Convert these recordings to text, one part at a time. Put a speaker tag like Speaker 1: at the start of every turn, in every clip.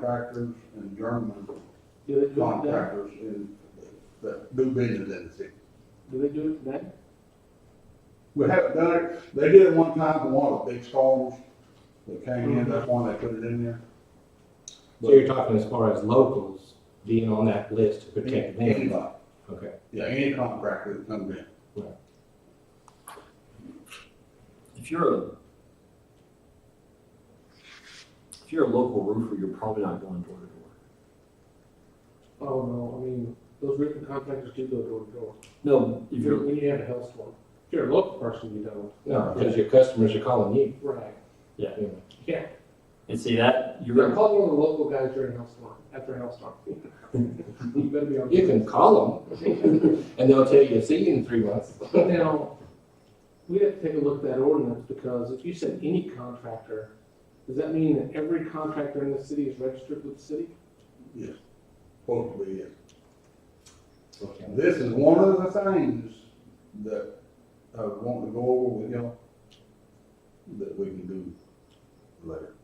Speaker 1: contractors and German
Speaker 2: Do they do it today?
Speaker 1: contractors in, that do business in the city.
Speaker 2: Do they do it today?
Speaker 1: We haven't done it, they did it one time for one of the big storms that came in, that's why they put it in there.
Speaker 3: So you're talking as far as locals being on that list to protect them?
Speaker 1: Anybody,
Speaker 3: Okay.
Speaker 1: yeah, any contractor that comes in.
Speaker 4: If you're a, if you're a local roofer, you're probably not going door to door.
Speaker 2: Oh, no, I mean, those written contractors do go door to door.
Speaker 4: No, if
Speaker 2: If you're,
Speaker 4: you're,
Speaker 2: when you have a health storm, if you're a local person, you don't.
Speaker 3: No, because your customers are calling you.
Speaker 2: Right.
Speaker 4: Yeah.
Speaker 3: You know.
Speaker 2: Yeah,
Speaker 4: and see that,
Speaker 2: you gotta
Speaker 4: you're,
Speaker 2: call one of the local guys during a health storm, after a health storm. You better be on.
Speaker 3: You can call them and they'll tell you, see you in three months.
Speaker 2: Now, we have to take a look at that ordinance, because if you said any contractor, does that mean that every contractor in the city is registered with the city?
Speaker 1: Supposed to be, yes.
Speaker 3: Okay.
Speaker 1: This is one of the things that I want to go over with y'all, that we can do later.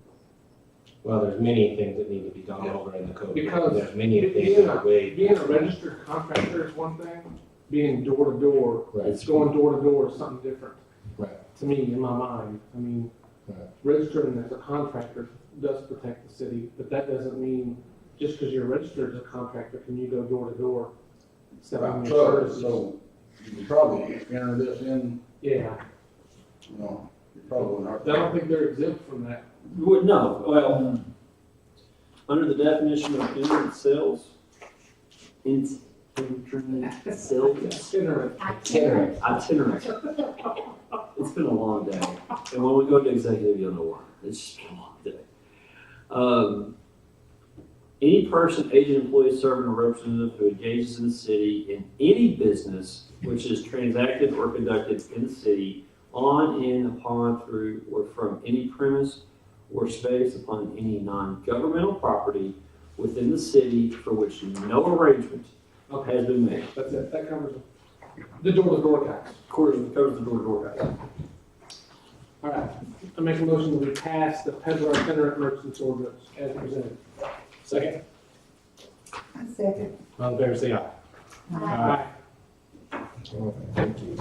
Speaker 3: Well, there's many things that need to be gone over in the code.
Speaker 2: Because
Speaker 3: There's many
Speaker 2: if
Speaker 3: things
Speaker 2: you're
Speaker 3: that are
Speaker 2: not-
Speaker 3: way.
Speaker 2: Being a registered contractor is one thing, being door to door,
Speaker 3: Right.
Speaker 2: it's going door to door is something different.
Speaker 3: Right.
Speaker 2: To me, in my mind, I mean,
Speaker 3: Right.
Speaker 2: registering as a contractor does protect the city, but that doesn't mean just because you're registered as a contractor, can you go door to door selling
Speaker 1: About
Speaker 2: your
Speaker 1: trucks,
Speaker 2: services?
Speaker 1: so you can probably enter this in,
Speaker 2: Yeah,
Speaker 1: you know, you probably
Speaker 2: I
Speaker 1: not.
Speaker 2: don't think they're exempt from that.
Speaker 4: you would, no, well, under the definition of internet sales, in- internet sales,
Speaker 2: Itinerant.
Speaker 3: Itinerant.
Speaker 4: itinerant. It's been a long day, and when we go to executive, you'll know why, it's just been a long day. Um, any person, agent, employee, servant, or representative who engages in the city in any business which is transacted or conducted in the city on, in, upon, through, or from any premise or space upon any non-governmental property within the city for which no arrangement
Speaker 2: Okay,
Speaker 4: has been made.
Speaker 2: that's it, that covers it. The door to door guys.
Speaker 4: According, covers the door-to-door guy.
Speaker 2: All right, I make a motion that we pass the peddler itinerant merchants ordinance as presented.
Speaker 3: Second,
Speaker 5: I second.
Speaker 3: all in favor, say aye.
Speaker 5: Aye.
Speaker 3: Thank you.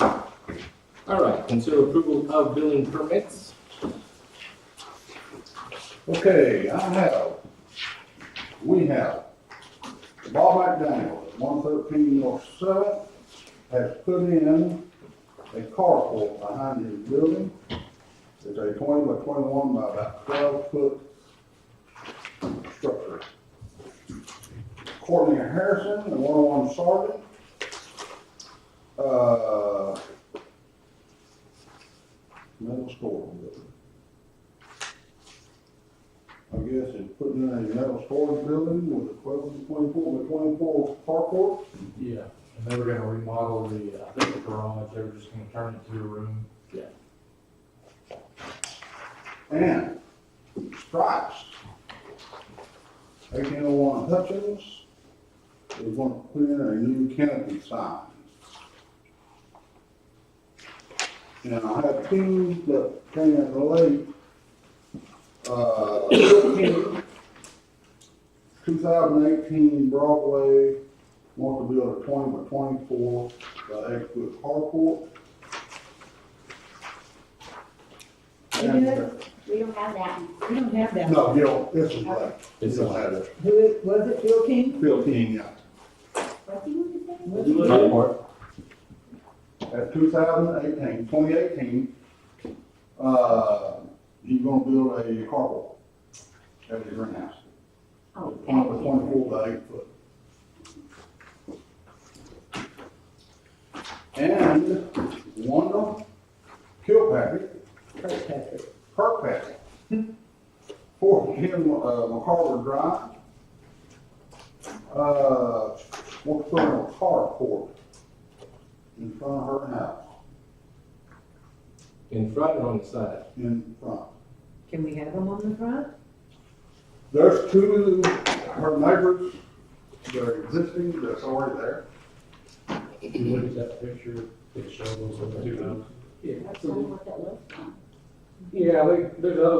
Speaker 3: All right, consider approval of billing permits.
Speaker 1: Okay, I have, we have, Bob McDaniel, one thirteen North Seventh, has put in a carport behind his building. It's a twenty by twenty-one by about twelve foot structure. Courtney Harrison and one oh one Sergeant. Uh, middle school building. I guess, is putting in a metal storage building with a twelve to twenty-four by twenty-four carport.
Speaker 6: Yeah, and they were gonna remodel the, I think the garage, they were just gonna turn it to a room.
Speaker 1: And Stripes, eighteen oh one Hutchins, is gonna put in a new canopy sign. And I have two that came in late. Uh, two thousand eighteen Broadway, want to build a twenty by twenty-four by eight foot carport.
Speaker 5: You
Speaker 1: And-
Speaker 5: do it? We don't have that one. We don't have that.
Speaker 1: No, you don't, this is late.
Speaker 3: This is
Speaker 1: later.
Speaker 5: Who is, was it Bill King?
Speaker 1: Fifteen, yeah.
Speaker 5: What do you want to say?
Speaker 3: Report.
Speaker 1: At 2018, 2018, uh, he's gonna build a carport at his greenhouse.
Speaker 5: Oh,
Speaker 1: Twenty by
Speaker 5: Pat.
Speaker 1: twenty-four by eight foot. And Wanda Kilpatrick,
Speaker 5: Kirkpatrick.
Speaker 1: Kirkpatrick, four ten, uh, McCarver Drive. Uh, what's on a carport in front of her house,
Speaker 3: In front and on the side.
Speaker 1: in front.
Speaker 5: Can we have them on the front?
Speaker 1: There's two, her neighbors, that are existing, that's already there.
Speaker 6: Look at that picture, it shows those two houses.
Speaker 2: Yeah,
Speaker 5: That's
Speaker 2: absolutely.
Speaker 5: what that looks like.
Speaker 2: Yeah, like, there's other